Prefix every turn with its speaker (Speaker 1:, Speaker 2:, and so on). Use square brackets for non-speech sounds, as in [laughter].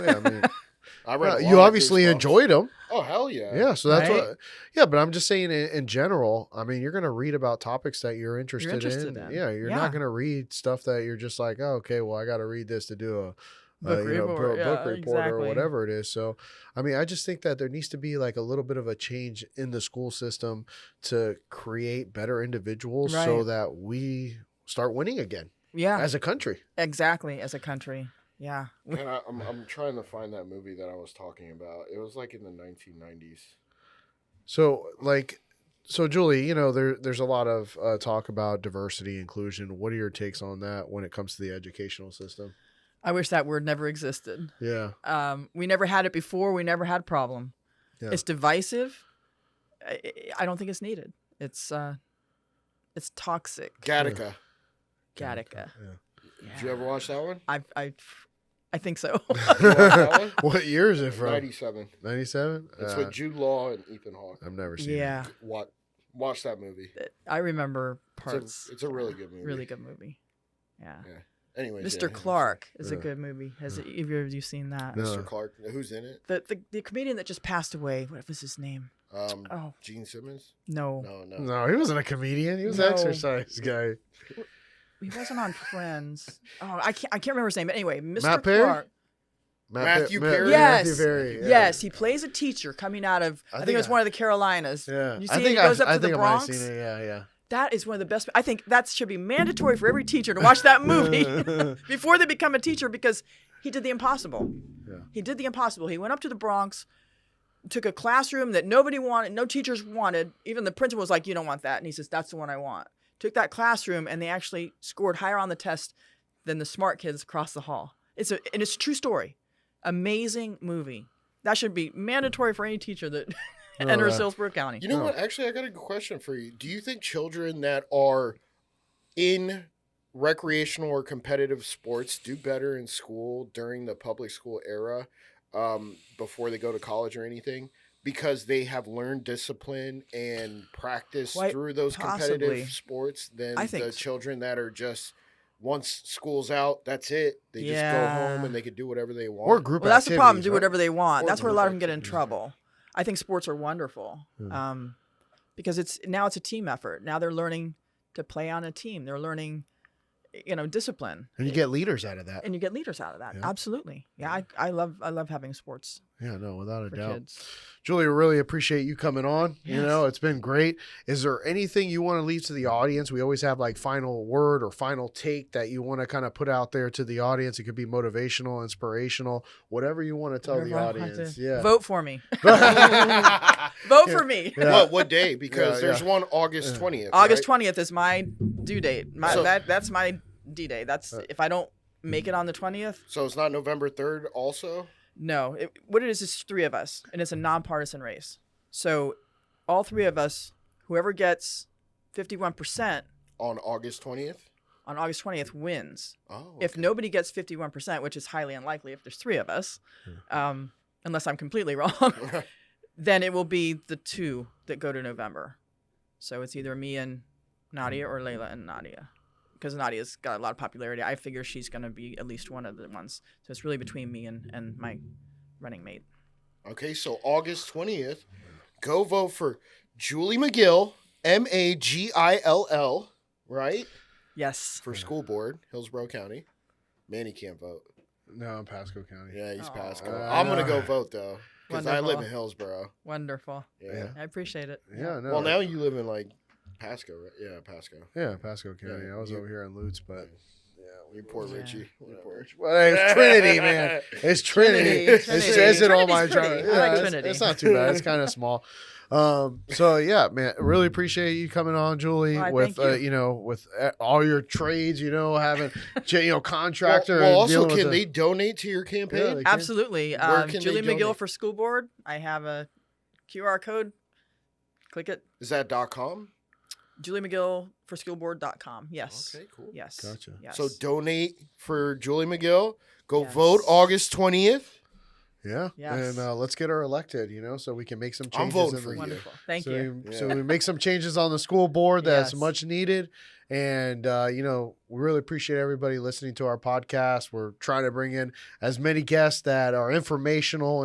Speaker 1: Yeah, I
Speaker 2: [laughs]
Speaker 1: mean,
Speaker 3: I read. a lot
Speaker 1: Uh, you
Speaker 3: of
Speaker 1: obviously
Speaker 3: Goosebumps.
Speaker 1: enjoyed them.
Speaker 3: Oh hell yeah!
Speaker 1: Yeah, so that's
Speaker 2: Right?
Speaker 1: what. Yeah, but I'm just saying in, in general. I mean, you're going to read about topics that you're interested,
Speaker 2: interested in.
Speaker 1: Yeah, you're
Speaker 2: Yeah.
Speaker 1: not going to read stuff that you're just like, oh, okay, well, I got to read this to do a
Speaker 2: Book
Speaker 1: uh, you know,
Speaker 2: report,
Speaker 1: pro- book
Speaker 2: yeah,
Speaker 1: report or
Speaker 2: exactly.
Speaker 1: whatever it is. So, I mean, I just think that there needs to be like a little bit of a change in the school system to create better individuals so
Speaker 2: Right.
Speaker 1: that we start winning again
Speaker 2: Yeah,
Speaker 1: as a country.
Speaker 2: exactly. As a country. Yeah.
Speaker 3: And I, I'm I'm trying to find that movie that I was talking about. It was like in the 1990s.
Speaker 1: So, like, so Julie, you know, there there's a lot of uh, talk about diversity, inclusion. What are your takes on that when it comes to the educational system?
Speaker 2: I wish that word never existed.
Speaker 1: Yeah,
Speaker 2: Um, we never had it before. We never had a problem.
Speaker 1: Yeah.
Speaker 2: It's divisive. I, I- I don't think it's needed. It's uh, it's toxic.
Speaker 3: Gattaca.
Speaker 2: Gattaca.
Speaker 3: Did you ever watch that one?
Speaker 2: I I I think so.
Speaker 3: [laughs] You
Speaker 2: [laughs]
Speaker 3: watch
Speaker 1: Yeah. [laughs]
Speaker 3: that one?
Speaker 1: what year is it from?
Speaker 3: 97.
Speaker 1: Ninety-seven. Ah,
Speaker 3: It's with Jude Law and Ethan Hawke.
Speaker 1: I've never seen.
Speaker 2: yeah,
Speaker 3: Watch, watch that movie.
Speaker 2: it- I remember
Speaker 3: It's a,
Speaker 2: parts.
Speaker 3: it's a really good movie.
Speaker 2: Really good movie. Yeah.
Speaker 3: Anyway,
Speaker 2: Mr. Clark is a
Speaker 1: Yeah.
Speaker 2: good movie. Has
Speaker 1: Yeah.
Speaker 2: either of you seen that?
Speaker 1: No.
Speaker 3: Mr. Clark. Who's in it?
Speaker 2: The, the the comedian that just passed away. What was his name?
Speaker 3: Um,
Speaker 2: Oh
Speaker 3: Gene Simmons?
Speaker 2: no,
Speaker 3: No, no.
Speaker 1: it. No, he wasn't a comedian. He was
Speaker 2: No.
Speaker 1: an exercise guy.
Speaker 2: he wasn't on Friends. Oh, I can't I can't remember his name. But anyway, Mr.
Speaker 1: Matt Perry?
Speaker 2: Clark.
Speaker 3: Matthew
Speaker 1: Ma-
Speaker 3: Perry?
Speaker 1: Matthew
Speaker 2: Yes.
Speaker 1: Perry, yeah.
Speaker 2: Yes, he plays a teacher coming out of I, think, it was
Speaker 1: I-
Speaker 2: one of the Carolinas.
Speaker 1: Yeah.
Speaker 2: You
Speaker 1: I
Speaker 2: see,
Speaker 1: think
Speaker 2: he goes
Speaker 1: I've-
Speaker 2: up
Speaker 1: I
Speaker 2: to the
Speaker 1: think I might have
Speaker 2: Bronx.
Speaker 1: seen it. Yeah,
Speaker 2: That is one of the best. I think that should be mandatory for every teacher to watch
Speaker 1: [laughs]
Speaker 2: that movie
Speaker 1: yeah.
Speaker 2: [laughs] before they become a teacher because he did the impossible.
Speaker 1: Yeah.
Speaker 2: He did the impossible. He went up to the Bronx, took a classroom that nobody wanted, no teachers wanted. Even the principal was like, "You don't want that," and he says, "That's the one I want." Took that classroom, and they actually scored higher on the test than the smart kids across the hall. It's a and it's a true story. Amazing movie. That should be mandatory for any teacher that [laughs] enters
Speaker 1: wow.
Speaker 2: Hillsborough County.
Speaker 3: You know
Speaker 1: No.
Speaker 3: what? Actually, I got a good question for you. Do you think children that are in recreational or competitive sports do better in school during the public school era um, before they go to college or anything? Because they have learned discipline and practice
Speaker 2: Quite
Speaker 3: through those
Speaker 2: possibly.
Speaker 3: competitive sports than
Speaker 2: I think
Speaker 3: the
Speaker 2: so.
Speaker 3: children that are just once school's out, that's it. They just go
Speaker 2: Yeah.
Speaker 3: home and they could do whatever they want.
Speaker 1: Or group.
Speaker 2: Well, that's the problem.
Speaker 1: activities,
Speaker 2: Do
Speaker 1: right?
Speaker 2: whatever they want.
Speaker 3: Or
Speaker 2: that's where a lot of them
Speaker 3: group
Speaker 2: get in
Speaker 3: activities, right.
Speaker 2: trouble. I think sports are wonderful
Speaker 1: Hmm.
Speaker 2: um, because it's now it's a team effort. Now they're learning to play on a team. They're learning, you know, discipline,
Speaker 1: And you get leaders out of that.
Speaker 2: and you get leaders out of that.
Speaker 1: Yeah.
Speaker 2: Absolutely. Yeah, I, I love I love having sports
Speaker 1: Yeah, no, without a
Speaker 2: for
Speaker 1: doubt.
Speaker 2: kids.
Speaker 1: Julie, we really appreciate you coming on. You
Speaker 2: Yes.
Speaker 1: know, it's been great. Is there anything you want to leave to the audience? We always have like final word or final take that you want to kind of put out there to the audience. It could be motivational, inspirational, whatever you want to tell the
Speaker 2: Whatever I want to- [laughs]
Speaker 1: audience. Yeah.
Speaker 2: Vote for me.
Speaker 1: [laughs] yeah.
Speaker 2: Vote
Speaker 1: Yeah.
Speaker 2: for me.
Speaker 3: What what day? Because
Speaker 1: Yeah,
Speaker 3: there's
Speaker 1: yeah.
Speaker 3: one August
Speaker 1: Yeah.
Speaker 3: twentieth.
Speaker 2: [laughs] August twentieth is my due date. My
Speaker 3: So-
Speaker 2: that that's my D day. That's
Speaker 1: Uh,
Speaker 2: if I don't make it on the twentieth.
Speaker 3: So it's not November 3rd also?
Speaker 2: No, it, what it is is three of us, and it's a nonpartisan race. So, all three of us, whoever gets fifty-one percent
Speaker 3: On August 20th?
Speaker 2: on August twentieth wins.
Speaker 3: Oh.
Speaker 2: If
Speaker 3: okay.
Speaker 2: nobody gets fifty-one percent, which is highly unlikely if there's three of us, um, unless I'm completely [laughs] wrong, then it will be the two that go to November. So it's either me and Nadia or Layla and Nadia, because Nadia's got a lot of popularity. I figure she's going to be at least one of the ones. So it's really between me and and my running mate.
Speaker 3: [laughs] okay, so August 20th, go vote for Julie McGill, M A G I L L, right?
Speaker 2: Yes.
Speaker 3: For school board, Hillsborough County. Manny can't vote.
Speaker 1: [laughs] No, I'm Pasco County.
Speaker 3: Yeah, he's
Speaker 2: Aw.
Speaker 3: Pasco.
Speaker 1: Uh,
Speaker 3: I'm going to go
Speaker 1: no.
Speaker 3: vote though because I live
Speaker 2: Wonderful.
Speaker 3: in Hillsborough.
Speaker 2: Wonderful.
Speaker 3: Yeah.
Speaker 1: Yeah.
Speaker 2: I appreciate it.
Speaker 1: Yeah, no.
Speaker 3: Well, now you live in like Pasco, right? Yeah, Pasco.
Speaker 1: Yeah, Pasco County. I was
Speaker 3: You-
Speaker 1: over here in Lutz, but yeah,
Speaker 3: You poor
Speaker 2: Yeah.
Speaker 3: Richie. You poor Richie.
Speaker 1: Well, hey, it's Trinity,
Speaker 3: [laughs]
Speaker 1: man. It's Trinity.
Speaker 2: Trinity,
Speaker 1: It
Speaker 2: Trinity.
Speaker 1: says it all my
Speaker 2: Trinity's
Speaker 1: job.
Speaker 2: pretty. I like
Speaker 1: it's,
Speaker 2: Trinity.
Speaker 1: it's not too bad. It's kind of small. Um, so yeah, man, really appreciate you coming on, Julie,
Speaker 2: Why,
Speaker 1: with
Speaker 2: thank you.
Speaker 1: Uh, you know with uh, all your trades, you know,
Speaker 2: [laughs]
Speaker 1: having you know
Speaker 3: Well,
Speaker 1: contractor.
Speaker 3: well,
Speaker 1: and
Speaker 3: also,
Speaker 1: dealing with
Speaker 3: can
Speaker 1: the-
Speaker 3: they donate to your
Speaker 1: Yeah,
Speaker 3: campaign?
Speaker 1: they can.
Speaker 2: Absolutely.
Speaker 3: Where
Speaker 2: Um,
Speaker 3: can they
Speaker 2: Julie McGill
Speaker 3: donate?
Speaker 2: for school board. I have a QR code. Click it.
Speaker 3: Is that dot com?
Speaker 2: Julie McGill for schoolboard.com. Yes.
Speaker 3: Okay, cool.
Speaker 2: Yes.
Speaker 1: Gotcha.
Speaker 2: Yes.
Speaker 3: So donate for Julie McGill. Go
Speaker 2: Yes.
Speaker 3: vote August 20th.
Speaker 1: Yeah,
Speaker 2: Yes.
Speaker 1: and uh, let's get her elected. You know, so we can make some changes.
Speaker 3: voting
Speaker 1: in
Speaker 3: for
Speaker 1: the-
Speaker 3: you.
Speaker 2: wonderful. Thank
Speaker 1: so
Speaker 2: you.
Speaker 1: We, so
Speaker 3: Yeah.
Speaker 1: we make some changes on the school board that's
Speaker 2: Yes.
Speaker 1: much needed, And, uh, you know, we really appreciate everybody listening to our podcast. We're trying to bring in as many guests that are informational